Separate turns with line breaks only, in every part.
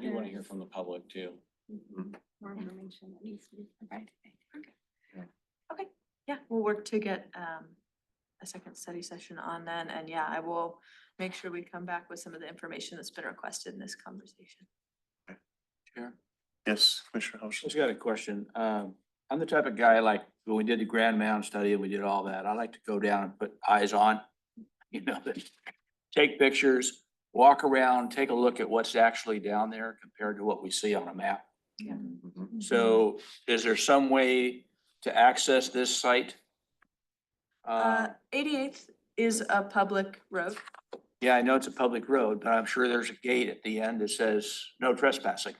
we want to hear from the public too.
Mhm. More information that needs to be provided. Okay.
Yeah, we'll work to get um a second study session on then, and yeah, I will make sure we come back with some of the information that's been requested in this conversation.
Chair.
Yes, Commissioner House.
Just got a question. Um, I'm the type of guy like, when we did the Grand Mound study and we did all that, I like to go down and put eyes on. You know, that- take pictures, walk around, take a look at what's actually down there compared to what we see on a map.
Yeah.
Mhm.
Mm-hmm.
So is there some way to access this site?
Uh,
Uh,
Um,
eighty-eighth is a public road.
yeah, I know it's a public road, but I'm sure there's a gate at the end that says no trespassing.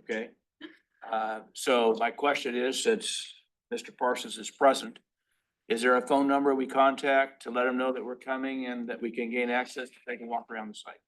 Okay? Uh, so my question is, since Mr. Parsons is present, is there a phone number we contact to let him know that we're coming and that we can gain access, they can walk around the site?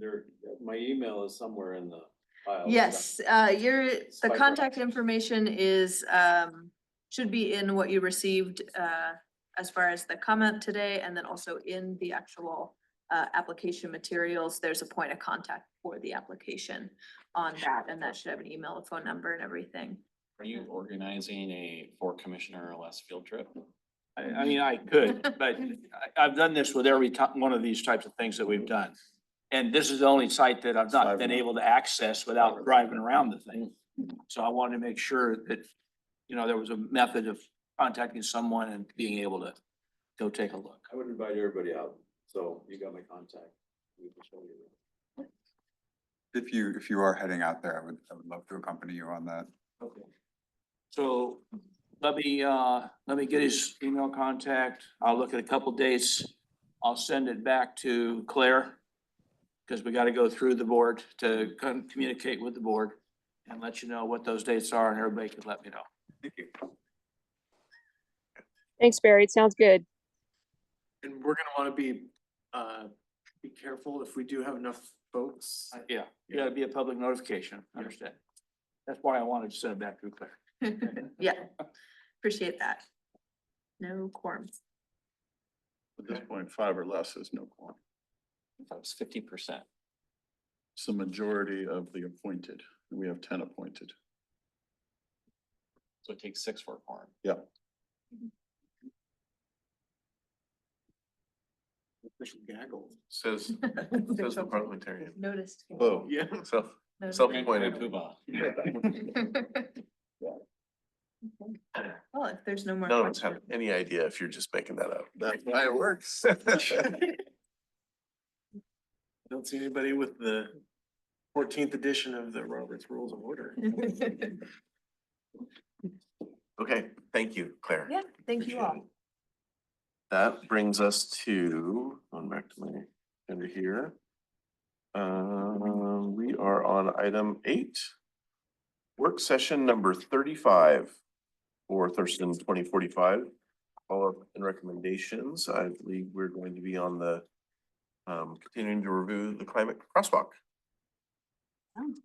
There, my email is somewhere in the file.
Yes, uh, your, the
Oh, Spike
contact
roads.
information is um, should be in what you received uh, as far as the comment today, and then also in the actual uh, application materials, there's a point of contact for the application on that, and that should have an email, a phone number and everything.
Are you organizing a four commissioner or less field trip?
I, I mean, I could, but I, I've done this with every ti- one of these types of things that we've done. And this is the only site that I've not been able to access without driving around the thing. So I wanted to make sure that, you know, there was a method of contacting someone and being able to go take a look.
I would invite everybody out, so you got my contact. We can show you.
If you, if you are heading out there, I would, I would love to accompany you on that.
Okay. So let me, uh, let me get his email contact. I'll look at a couple dates. I'll send it back to Claire. Cause we gotta go through the board to con- communicate with the board and let you know what those dates are and everybody can let me know.
Thank you.
Thanks, Barry. It sounds good.
And we're gonna wanna be, uh, be careful if we do have enough folks.
Uh, Yeah, you gotta be a public notification, I understand. That's why I wanted to send it back to Claire.
Yeah, appreciate that. No quorums.
At this point, five or less is no quorum.
That was fifty percent.
It's the majority of the appointed. We have ten appointed.
So it takes six for a quorum.
Official gaggle.
Says,
There's
says the
something.
parliamentarian.
Noticed.
Whoa,
Yeah.
self,
Noticed.
Grand-
self-appointed.
Grand Poobah.
Well, if there's no more.
None of us
questions-
have any idea if you're just making that up.
That's
why it works.
Don't see anybody with the fourteenth edition of the Roberts Rules of Order.
Okay, thank you, Claire.
Yeah, thank you all.
That brings us to, going back to my agenda here. Um, we are on item eight. Work session number thirty-five for Thurston twenty forty-five. Follow-up and recommendations. I believe we're going to be on the um, continuing to review the climate crosswalk.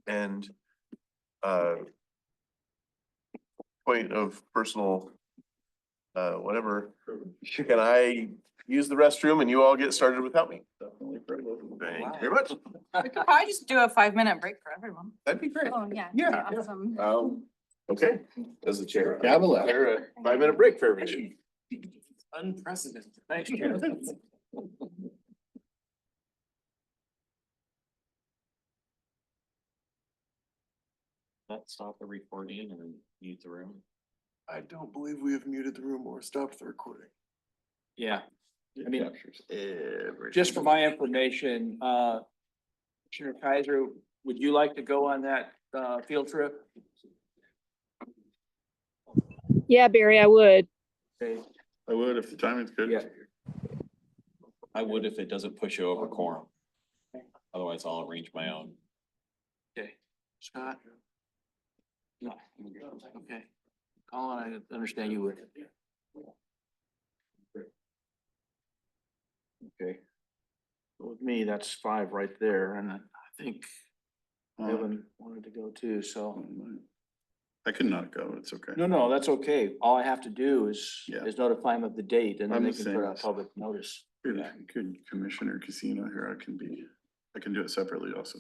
And uh point of personal uh, whatever, can I use the restroom and you all get started without me? Thank you very much.
We could probably just do a five minute break for everyone.
That'd be great.
Oh, yeah.
Yeah.
Awesome.
Um, okay, as the chair.
Yeah, I'm allowed.
There, a Five minute break for everybody.
Unprecedented. Thanks, Chair.
That stop the recording and mute the room.
I don't believe we have muted the room or stopped the recording.
Yeah, I mean, just for my information, uh, Commissioner Kaiser, would you like to go on that, uh, field trip?
Yeah, Barry, I would.
Okay,
I would if the timing's good.
Yeah.
I would if it doesn't push you over quorum. Otherwise, I'll arrange my own.
okay. Scott? No, okay. Colin, I understand you would. Okay. With me, that's five right there, and I I think
Um,
Evan wanted to go too, so.
I could not go, it's okay.
No, no, that's okay. All I have to do is,
Yeah.
is notify them of the date and then
I'm
they
the
can put
same.
out public notice.
Good Commissioner Casino here, I can be, I can do it separately also.